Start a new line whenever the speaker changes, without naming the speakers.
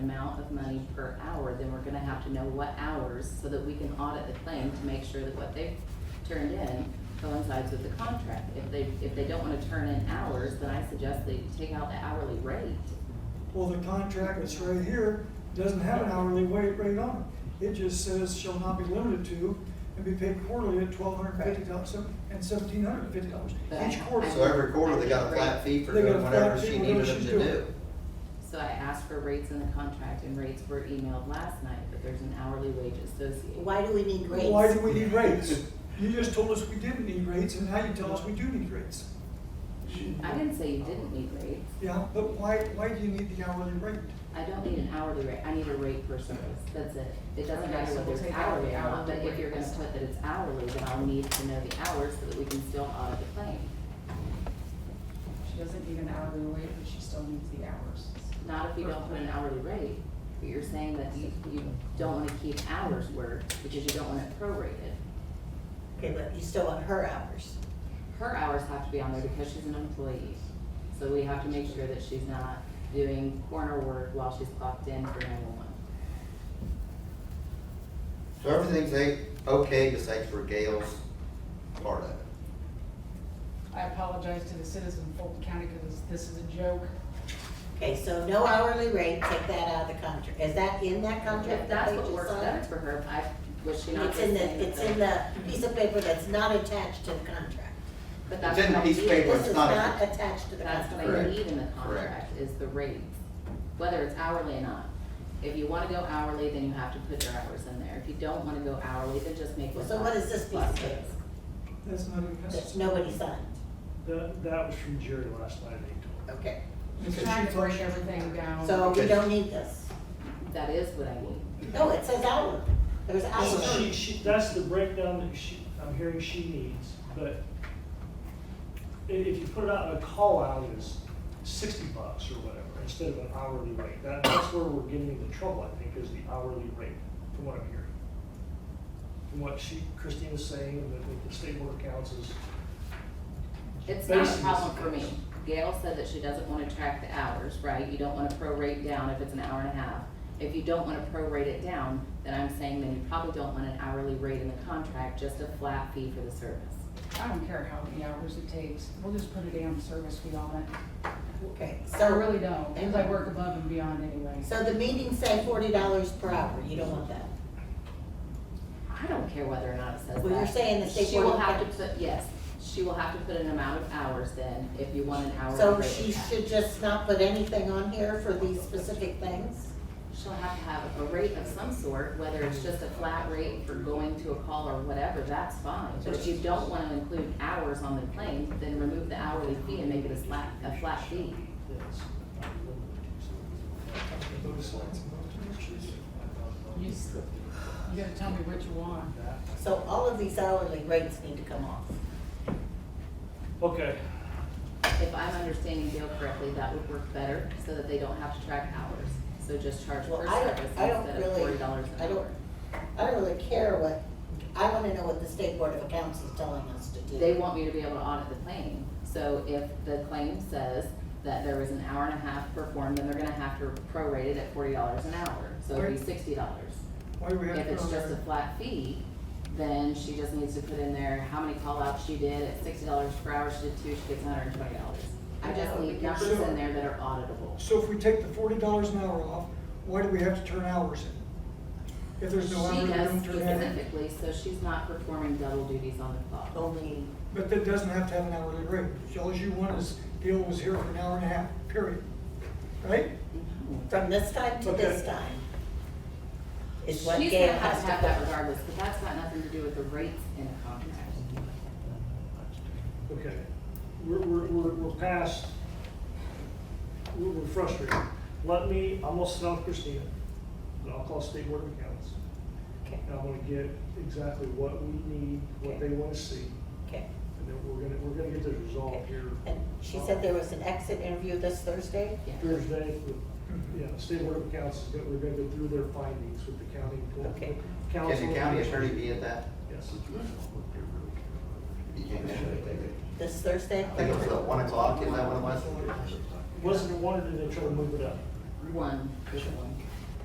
money per hour, then we're gonna have to know what hours so that we can audit the claim to make sure that what they've turned in coincides with the contract. If they, if they don't wanna turn in hours, then I suggest they take out the hourly rate.
Well, the contract that's right here doesn't have an hourly wage rate on it. It just says shall not be limited to and be paid quarterly at twelve hundred fifty dollars and seventeen hundred fifty dollars
But I-
each quarter.
I-
So every quarter, they got a flat fee for
They got a
doing
flat
whatever
fee
she
for
needed
what
them
she's
to
doing.
do.
So I asked for rates in the contract and rates were emailed last night, but there's an hourly wage associated.
Why do we need
Well, Why do
grades?
we need rates? You just told us we didn't need rates and now you tell us we do need rates.
I didn't say you didn't need rates.
Yeah, but why, why do you need the hourly rate?
I don't need an hourly rate, I need a rate per service, that's it. It doesn't
Okay,
matter
so
whether
we'll
it's
take out
hourly
the
or not,
hourly
but if
rate
you're gonna
this
put
time.
that it's hourly, then I'll need to know the hours so that we can still audit the claim.
She doesn't need an hourly rate, but she still needs the hours.
Not if you don't put an hourly rate, but you're saying that you, you don't wanna keep hours worked because you don't want it prorated.
Okay, but you still want her hours.
Her hours have to be on there because she's an employee, so we have to make sure that she's not doing corner work while she's clocked in for nine-one-one.
So everything's a- okay, besides for Gail's part of it.
I apologize to the citizens of Fulton County because this is a joke.
Okay, so no hourly rate, take that out of the contract. Is that in that contract
If
that
that's
they
what
just
works
signed?
better for her, I, was she not
It's
just
in
saying that?
the, it's in the piece of paper that's not attached to the contract.
But
It's
that's
in the
what I
piece of
need.
paper. Well,
This
it's
is
not
not
attached.
attached to the
That's
contract.
what I
Correct.
need in the
Correct.
contract, is the rates, whether it's hourly or not. If you wanna go hourly, then you have to put your hours in there. If you don't wanna go hourly, then just make it.
So what is this piece
flat
of
rates.
paper
That's not even
that
necessary.
nobody signed?
That, that was from Jerry last night, he told me.
Okay,
Just trying to break everything down.
so we
Okay.
don't need this.
That is what I need.
No, it says hour. There's
So she,
hours.
she, that's the breakdown that she, I'm hearing she needs, but i- if you put it out in a call out as sixty bucks or whatever, instead of an hourly rate, that, that's where we're getting into trouble, I think, is the hourly rate, from what I'm hearing. From what she, Christine is saying, and that what the state board of accounts is,
It's not a
Basically,
problem
it's
for me.
okay.
Gail said that she doesn't wanna track the hours, right? You don't wanna prorate down if it's an hour and a half. If you don't wanna prorate it down, then I'm saying then you probably don't want an hourly rate in the contract, just a flat fee for the service.
I don't care how many hours it takes, we'll just put a damn service fee on it.
Okay,
I
so.
really don't, because I work above and beyond anyway.
So the meetings say forty dollars per hour. You don't want that.
I don't care whether or not it says that.
Well, you're saying the state
She will
board
have to
can-
put, yes, she will have to put an amount of hours then, if you want an hour.
So she should just not put anything on here for these specific things?
She'll have to have a rate of some sort, whether it's just a flat rate for going to a call or whatever, that's fine. But if you don't wanna include hours on the claim, then remove the hourly fee and make it a flat, a flat fee.
that's not limited to, so.
Those slides and those pictures.
You s- you gotta tell me what you want.
So all of these hourly rates need to come off.
Okay,
If I'm understanding Gail correctly, that would work better, so that they don't have to track hours. So just charge
Well,
per
I
service
don't, I don't
instead of
really,
forty dollars an hour.
I don't, I don't really care what, I wanna know what the state board of accounts is telling us to do.
they want me to be able to audit the claim. So if the claim says that there was an hour and a half performed, then they're gonna have to prorate it at forty dollars an hour, so it'd be sixty dollars.
Why do we have to
If
put
it's
on
just a
there?
flat fee, then she just needs to put in there how many call-outs she did, at sixty dollars per hour, she did two, she gets hundred and twenty dollars. I just need numbers in there that are auditable.
So if we take the forty dollars an hour off, why do we have to turn hours in? If there's no hours,
She
we
does
don't turn hours. in.
specifically, so she's not performing double duties on the clock.
Oh.
Only,
But that doesn't have to have an hourly rate. All you want is, Gail was here for an hour and a half, period. Right?
Mm-hmm.
from this time to this
Okay.
time. Is what
She's gonna
Gail
have
has
to
to
have that
put.
regardless, but that's got nothing to do with the rates in the contract.
Okay, we're, we're, we're, we're past, we're, we're frustrated. Let me, I'm gonna sit down with Christina, and I'll call State Board of Accounts,
Okay,
and I'm gonna get exactly what we need, what they wanna see,
okay.
and then we're gonna, we're gonna get this resolved here
And she said there was an exit interview this Thursday?
Yeah.
Thursday. with- Yeah, State Board of Accounts, is gonna- we're gonna go through their findings with the county.
Okay.
Can
council.
the county attorney be at that?
Yes.
You can't actually take it.
This
I
Thursday?
think it was at one o'clock, is that what it was?
Wasn't it wanted, did they try to move it up?
One, is the one.